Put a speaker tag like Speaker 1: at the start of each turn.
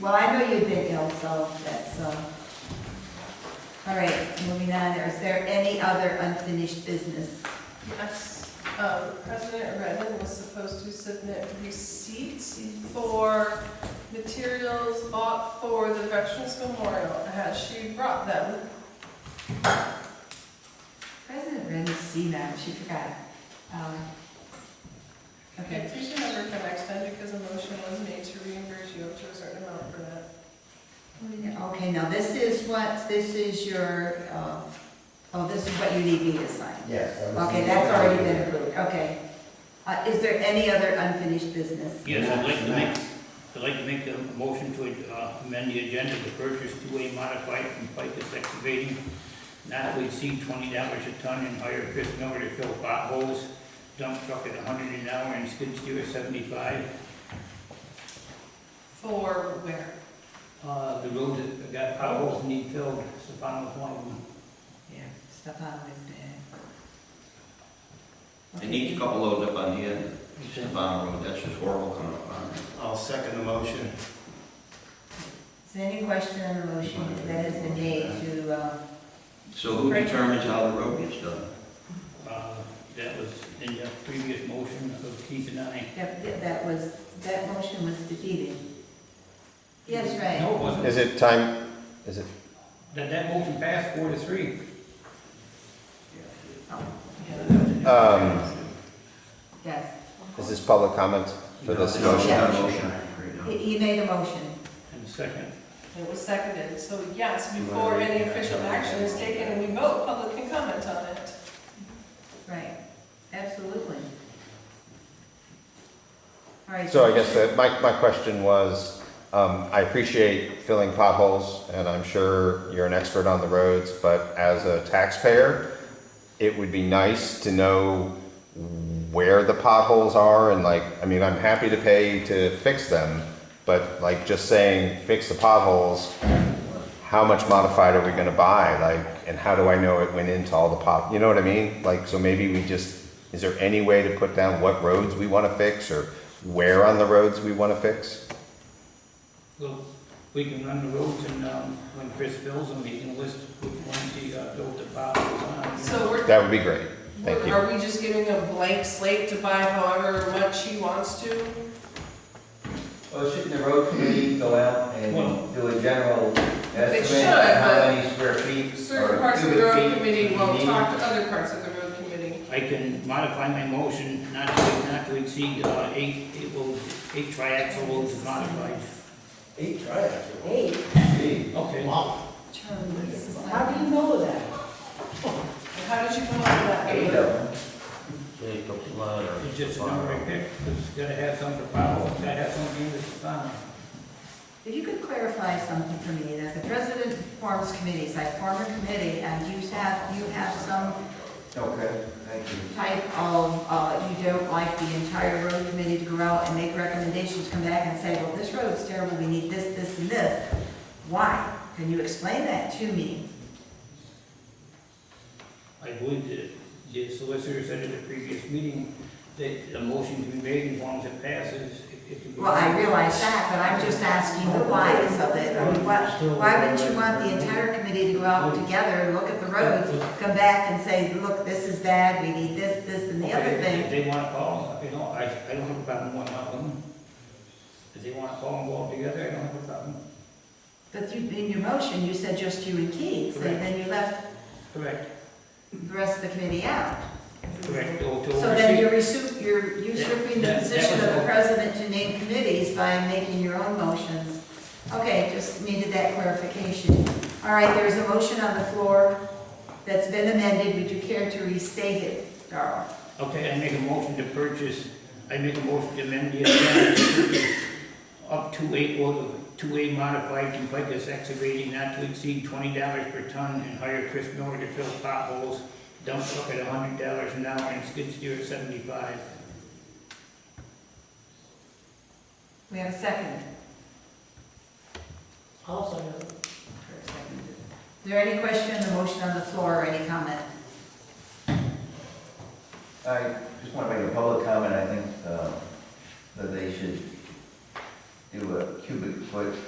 Speaker 1: Well, I know you've been ill, so that's, um, all right, moving on, is there any other unfinished business?
Speaker 2: Yes, um, President Redmond was supposed to submit receipts for materials bought for the Veterans Memorial. Has she brought them?
Speaker 1: President Ren's seen that, she forgot. Um,
Speaker 2: Okay,
Speaker 1: Okay,
Speaker 2: please remember for next time, because a motion was made to reimburse you up to a certain amount for that.
Speaker 1: okay, now this is what, this is your, uh, oh, this is what you need me to sign.
Speaker 3: Yes. that was-
Speaker 1: Okay, that's already been approved, okay. Uh, Is there any other unfinished business?
Speaker 4: Yes, I'd like to make, I'd like to make a motion to uh, amend the agenda to purchase two-way modified from Picus Excavating, not to exceed twenty dollars a ton, and hire Chris Miller to fill potholes, dump truck at a hundred an hour, and skid steer at seventy-five.
Speaker 2: For where?
Speaker 4: Uh, the roads that got potholes need filled, Stefan was one of them.
Speaker 1: Yeah, Stefan was there.
Speaker 5: They need to couple those up on the end,
Speaker 4: You said-
Speaker 5: Stefan Road, that's just horrible coming up on there.
Speaker 3: I'll second the motion.
Speaker 1: Is there any question on the motion that has been made to, uh,
Speaker 5: So who determines how the road gets done?
Speaker 4: Uh, That was in the previous motion of Keith and I.
Speaker 1: that that was, that motion was defeated? Yes, right.
Speaker 4: No, it wasn't.
Speaker 6: Is it time, is it,
Speaker 4: That, that motion passed four to three.
Speaker 1: Oh,
Speaker 6: um,
Speaker 1: Yes,
Speaker 6: is this public comment for this
Speaker 5: No, it's
Speaker 6: motion?
Speaker 5: not a motion right now.
Speaker 1: he he made a motion.
Speaker 4: And second,
Speaker 2: It was seconded, so yes, before any official action is taken, we vote, public can comment on it.
Speaker 1: Right, absolutely. All right.
Speaker 6: So I guess that, my, my question was, um, I appreciate filling potholes, and I'm sure you're an expert on the roads, but as a taxpayer, it would be nice to know where the potholes are, and like, I mean, I'm happy to pay to fix them, but like, just saying, fix the potholes, how much modified are we gonna buy, like, and how do I know it went into all the pot, you know what I mean? Like, so maybe we just, is there any way to put down what roads we wanna fix, or where on the roads we wanna fix?
Speaker 4: well, we can run the roads and, um, when Chris fills them, he can list which ones he, uh, built the potholes on.
Speaker 2: So we're
Speaker 6: That would be great, thank you.
Speaker 2: Are we just giving a blank slate to buy however much he wants to?
Speaker 7: Well, shouldn't the road committee go out
Speaker 4: Well-
Speaker 7: and do a general
Speaker 2: should,
Speaker 7: estimate of how
Speaker 2: but
Speaker 7: many square feet?
Speaker 2: Certain
Speaker 7: or
Speaker 2: parts of the
Speaker 7: cubic
Speaker 2: road
Speaker 7: feet
Speaker 2: committee
Speaker 7: you
Speaker 2: will
Speaker 7: need?
Speaker 2: talk to other parts of the road committee.
Speaker 4: I can modify my motion not to, not to exceed, uh, eight, eight, well, eight triaxle loads modified.
Speaker 3: Eight triaxles.
Speaker 8: Hey,
Speaker 3: Gee,
Speaker 4: Okay.
Speaker 3: Wow.
Speaker 8: how do you know that?
Speaker 2: How did you come up with that?
Speaker 7: Eight of them.
Speaker 5: Jacob's ladder.
Speaker 4: It's just a number I picked, because you gotta have some to follow, gotta have something to follow.
Speaker 1: If you could clarify something for me, that the president forms committees, I form a committee, and you have, you have some
Speaker 7: Okay, thank you.
Speaker 1: type of, uh, you don't like the entire road committee to go out and make recommendations, come back and say, well, this road's terrible, we need this, this, and this. Why? Can you explain that to me?
Speaker 4: I believe that the solicitor said at the previous meeting that a motion can be made as long as it passes. it- it can be-
Speaker 1: Well, I realize that, but I'm just asking the whys of it. I mean, Why, why would you want the entire committee to go out together, look at the roads, come back and say, look, this is bad, we need this, this, and the other
Speaker 4: Okay, If
Speaker 1: thing?
Speaker 4: they wanna call, you know, I, I don't have a problem with one of them. If they wanna call and go all together, I don't have a problem.
Speaker 1: But you, in your motion, you said just you and Keith, so
Speaker 4: Correct.
Speaker 1: then you left
Speaker 4: Correct,
Speaker 1: the rest of the committee out.
Speaker 4: correct, to to oversee.
Speaker 1: So then you're usurp- you're usurping the
Speaker 4: That- that
Speaker 1: position
Speaker 4: was
Speaker 1: of the
Speaker 4: all.
Speaker 1: president to name committees by making your own motions. Okay, just needed that clarification. All right, there's a motion on the floor that's been amended. Would you care to restate it, Darrell?
Speaker 4: Okay, I make a motion to purchase, I make a motion to amend the agenda to purchase up to eight, or two A modified from Pecos excavating not to exceed twenty dollars per ton and hire Chris Miller to fill potholes, dump truck at hundred dollars an hour and skid steer at seventy-five.
Speaker 1: We have a second.
Speaker 8: I'll say it.
Speaker 1: Is there any question on the motion on the floor or any comment?
Speaker 7: I just want to make a public comment, I think, uh, that they should do a cubic foot